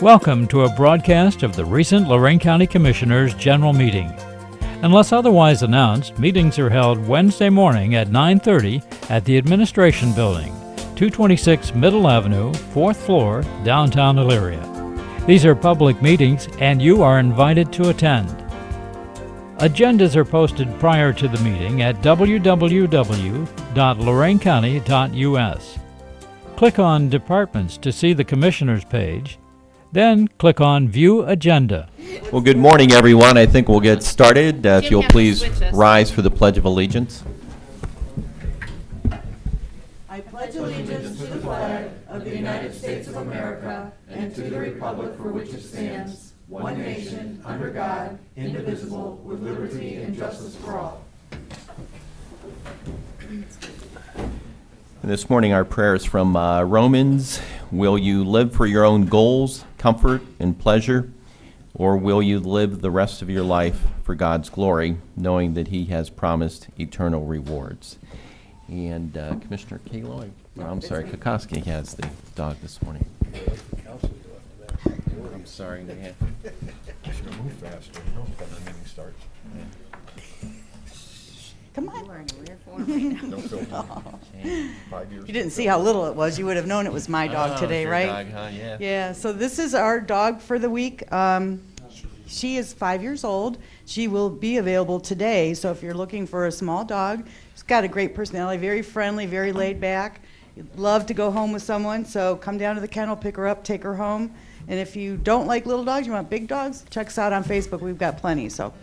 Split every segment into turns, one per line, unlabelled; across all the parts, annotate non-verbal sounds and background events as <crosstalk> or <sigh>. Welcome to a broadcast of the recent Lorraine County Commissioners' General Meeting. Unless otherwise announced, meetings are held Wednesday morning at 9:30 at the Administration Building, 226 Middle Avenue, 4th floor, downtown Elyria. These are public meetings and you are invited to attend. Agendas are posted prior to the meeting at www.loraincounty.us. Click on Departments to see the Commissioners page, then click on View Agenda.
Well, good morning, everyone. I think we'll get started. Uh, If
Jim,
you'll
you have to
please
switch us.
rise for the Pledge of Allegiance. And This morning, our prayer is from uh, Romans. Will you live for your own goals, comfort, and pleasure? Or will you live the rest of your life for God's glory, knowing that He has promised eternal rewards? And uh, Commissioner Kalo, I'm sorry, Kokoski has the dog this morning. I'm sorry, Nan.
Should have moved faster, you know, when the meeting starts.
Come on.
Don't feel bad. Five
<laughs>
years.
You didn't see how little it was. You would have known it was my dog
Oh,
today,
your
right?
dog, huh? Yeah.
Yeah, so this is our dog for the week. Um, she is five years old. She will be available today, so if you're looking for a small dog, she's got a great personality, very friendly, very laid back. Love to go home with someone, so come down to the kennel, pick her up, take her home. And if you don't like little dogs, you want big dogs, check us out on Facebook. We've got plenty, so.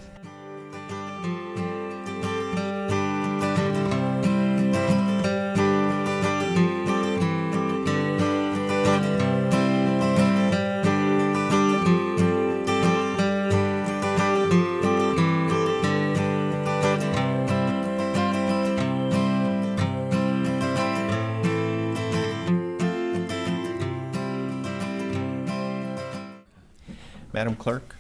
Madam Clerk?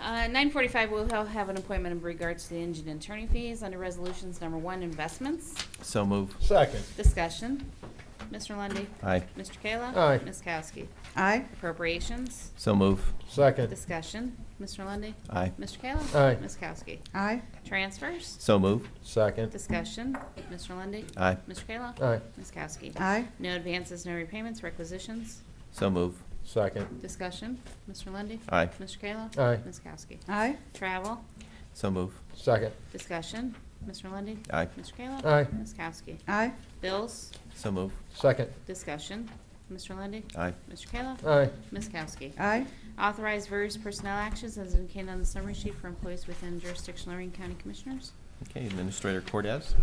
Uh, 9:45, we'll have an appointment in regards to the engine and attorney fees under Resolutions Number One, Investments.
So move.
Second,
Discussion. Mr. Lundy.
Aye.
Mr. Kayla.
Aye.
Ms. Kowski.
Aye.
Appropriations.
So move.
second,
Discussion. Mr. Lundy.
Aye.
Mr. Kayla.
Aye.
Ms. Kowski.
Aye.
Transfers.
So move.
second,
Discussion. Mr. Lundy.
Aye.
Mr. Kayla.
Aye.
Ms. Kowski.
Aye.
No advances, no repayments, requisitions.
So move.
second,
Discussion. Mr. Lundy.
Aye.
Mr. Kayla.
Aye.
Ms. Kowski.
Aye.
Travel.
So move.
second,
Discussion. Mr. Lundy.
Aye.
Mr. Kayla.
Aye.
Ms. Kowski.
Aye.
Bills,
So move.
second,
discussion. Mr. Lundy,
Aye.
Mr. Kayla?
aye,
Ms. Kowski?
Aye.
Authorize various personnel actions as indicated on the summary sheet for employees within jurisdiction Lorraine County Commissioners.
Okay, Administrator Cortez.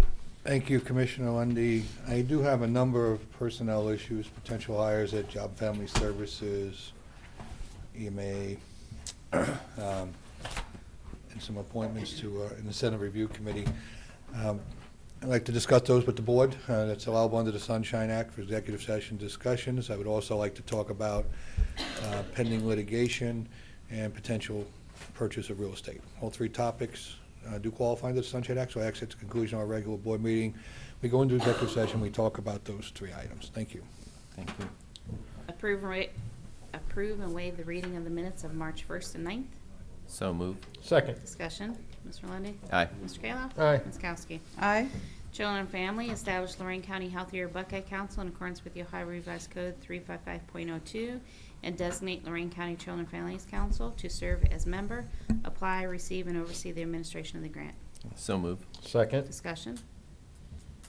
Thank you, Commissioner Lundy. I do have a number of personnel issues, potential hires at Job Family Services, EMA, <clears throat> um, and some appointments to, uh, in the Senate Review Committee. Um, I'd like to discuss those with the board. Uh, That's allowable under the Sunshine Act for executive session discussions. I would also like to talk about uh, pending litigation and potential purchase of real estate. All three topics uh, do qualify under the Sunshine Act, so I ask at the conclusion of our regular board meeting, we go into executive session, we talk about those three items. Thank you.
Thank you.
Approve, and wa- approve and waive the reading of the minutes of March 1st and 9th.
So move.
second,
Discussion, Mr. Lundy,
Aye.
Mr. Kayla?
Aye.
Ms. Kowski?
Aye.
Children and Family, establish Lorraine County Healthier Buckeye Council in accordance with the Ohio Revised Code 355.02 and designate Lorraine County Children and Families Council to serve as member, apply, receive, and oversee the administration of the grant.
So move.
second,
Discussion.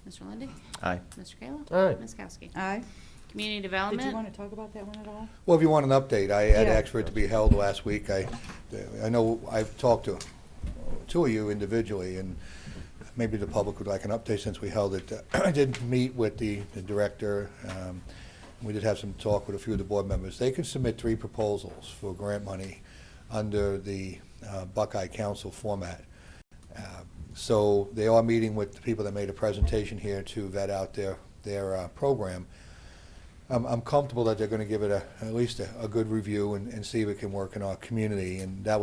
Mr. Lundy,
Aye.
Mr. Kayla?
Aye.
Ms. Kowski?
Aye.
Community
Did you
Development,
want to talk about that one at all?
Well, if you want an update, I had
Yeah.
asked for it to be held last week. I, I know I've talked to two of you individually, and maybe the public would like an update since we held it. <clears throat> I did meet with the the director. um, We did have some talk with a few of the board members. They can submit three proposals for grant money under the uh, Buckeye Council format. Uh, So they are meeting with the people that made a presentation here to vet out their, their uh, program. I'm, I'm comfortable that they're going to give it a, at least a, a good review and, and see if it can work in our community. And that